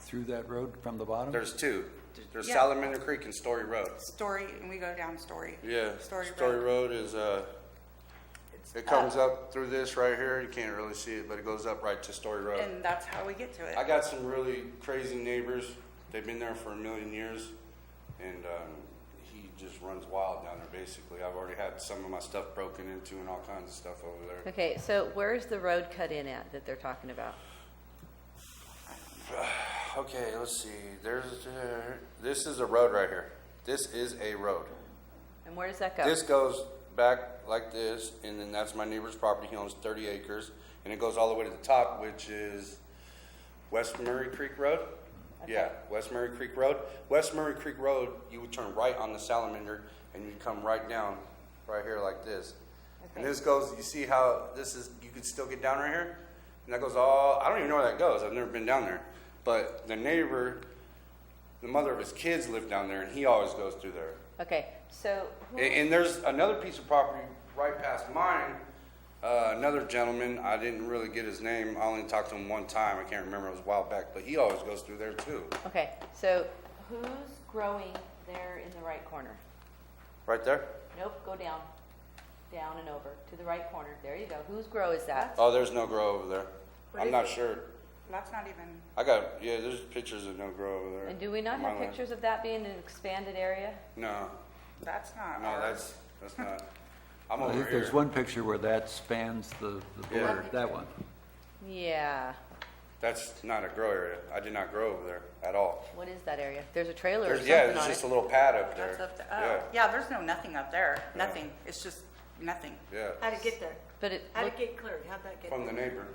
through that road from the bottom? There's two. There's Yeah. Salamander Creek and Story Road. Story, and we go down Story. Yeah, Story Story Road. Road is, uh, It's it comes up through this right here. You can't really see it, but it goes up right to Story Road. And that's how we get to it. I got some really crazy neighbors. They've been there for a million years, and um, he just runs wild down there. Basically, I've already had some of my stuff broken into and all kinds of stuff over there. Okay, so where's the road cut in at that they're talking about? Okay, let's see. There's uh, this is a road right here. This is a road. And where does that go? This goes back like this, and then that's my neighbor's property. He owns 30 acres, and it goes all the way to the top, which is West Murray Creek Road. Yeah, West Murray Creek Road. West Murray Creek Road, you would turn right on the Salamander, and you come right down, right here like this. And this goes. You see how this is? You can still get down right here, and that goes all. I don't even know where that goes. I've never been down there, but the neighbor, the mother of his kids, lived down there, and he always goes through there. Okay, so who- And, and there's another piece of property right past mine. Uh, another gentleman, I didn't really get his name. I only talked to him one time. I can't remember. It was a while back, but he always goes through there too. okay, so who's growing there in the right corner? Right there? Nope, go down, down and over to the right corner. There you go. Whose grow is that? Oh, there's no grow over there. What I'm is not it? sure. That's not even, I got, yeah, there's pictures of no grow over there. And do we not on have my land. pictures of that being an expanded area? No, that's not no, ours. that's, that's not. I'm I over think there's here. one picture where that spans the, the Yeah. border, that one. Yeah, That's not a grow area. I did not grow over there at all. what is that area? There's a trailer or There's, yeah, something there's on just it. a little pad up there. That's up to, Yeah, oh, yeah, there's no nothing up there. Nothing. It's just nothing. yeah, How'd it get there? But it, How'd look- it get cleared? How'd that get? from the cleared? neighbor.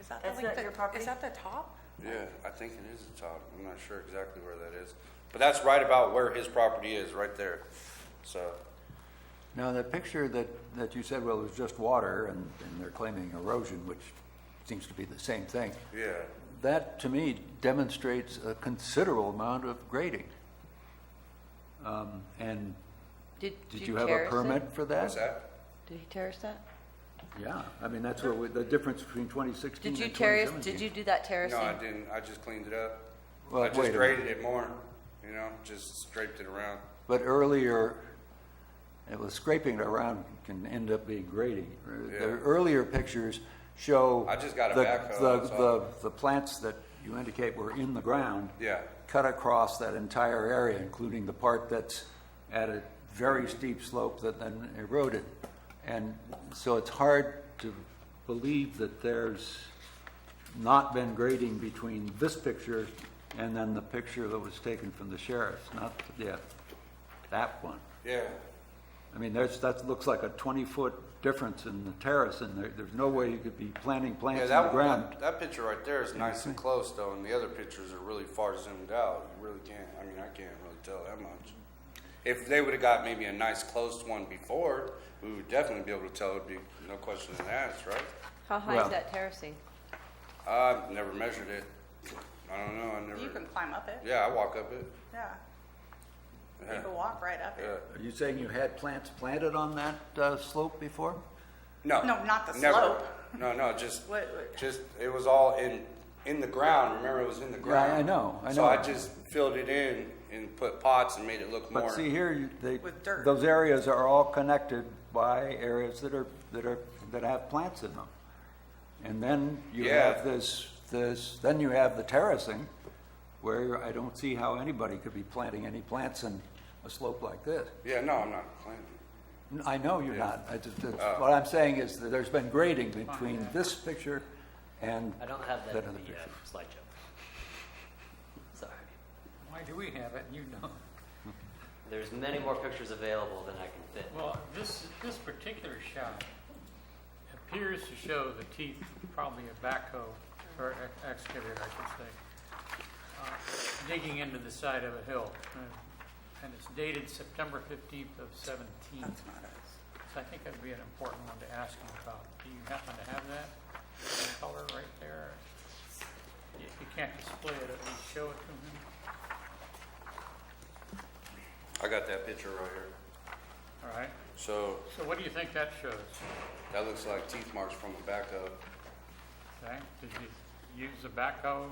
Is that That's the link not that- your property? Is that the top? Yeah, I think it is the top. I'm not sure exactly where that is. But that's right about where his property is, right there. So, Now, that picture that, that you said, well, it was just water and, and they're claiming erosion, which seems to be the same thing. yeah. That, to me, demonstrates a considerable amount of grading. Um, And did, did you have a terrace it? permit for that? What's that? Did he terrace that? Yeah, I mean, that's what, we- the difference between 2016 Did and you terrace, 2017. did you do that terracing? No, I didn't. I just cleaned it up. Well, I wait just a minute. graded it more, you know, just scraped it around. But earlier, it was scraping it around can end up being grading. The Yeah. earlier pictures show. I just got a the- backhoe, the- that's all. The, the plants that you indicate were in the ground. Yeah. Cut across that entire area, including the part that's at a very steep slope that then eroded. And so it's hard to believe that there's not been grading between this picture and then the picture that was taken from the sheriff's, not, yeah, that one. Yeah. I mean, there's, that looks like a 20-foot difference in the terrace, and there, there's no way you could be planting Yeah, plants in the that, ground. that, that picture right there is nice and close though, and the other pictures are really far zoomed out. You really can't, I mean, I can't really tell that much. If they would've got maybe a nice close one before, we would definitely be able to tell, it'd be no question asked, right? How high Well- is that terracing? I've never measured it. I don't know. I You never. can climb up it. Yeah, I walk up it. Yeah. You Yeah. can walk right up Yeah. it. Are you saying you had plants planted on that uh, slope before? No. No, not the never. slope. No, no, just, What- what- just it was all in in the ground. Remember, it was in the ground. I know, I so know. I just filled it in and put pots and made it look more. But see here, you- they, With dirt. those areas are all connected by areas that are, that are, that have plants in them. And then you Yeah. have this, this, then you have the terracing, where I don't see how anybody could be planting any plants in a slope like this. yeah, no, I'm not complaining. N- I know you're not. I just, that's- what I'm saying is that there's been grading between this picture and I don't have that that in other the uh, picture. slideshow. Sorry. Why do we have it? You know. There's many more pictures available than I can fit. Well, this, this particular shot appears to show the teeth, probably a backhoe, or ex- excavator, I should say, uh, digging into the side of a hill. Uh, And it's dated September 15th of 17. That's not us. So I think that'd be an important one to ask him about. Do you happen to have that color right there? If you can't display it, at least show it to him. I got that picture right here. All right. So So what do you think that shows? that looks like teeth marks from the back of. Okay, did you use the backhoe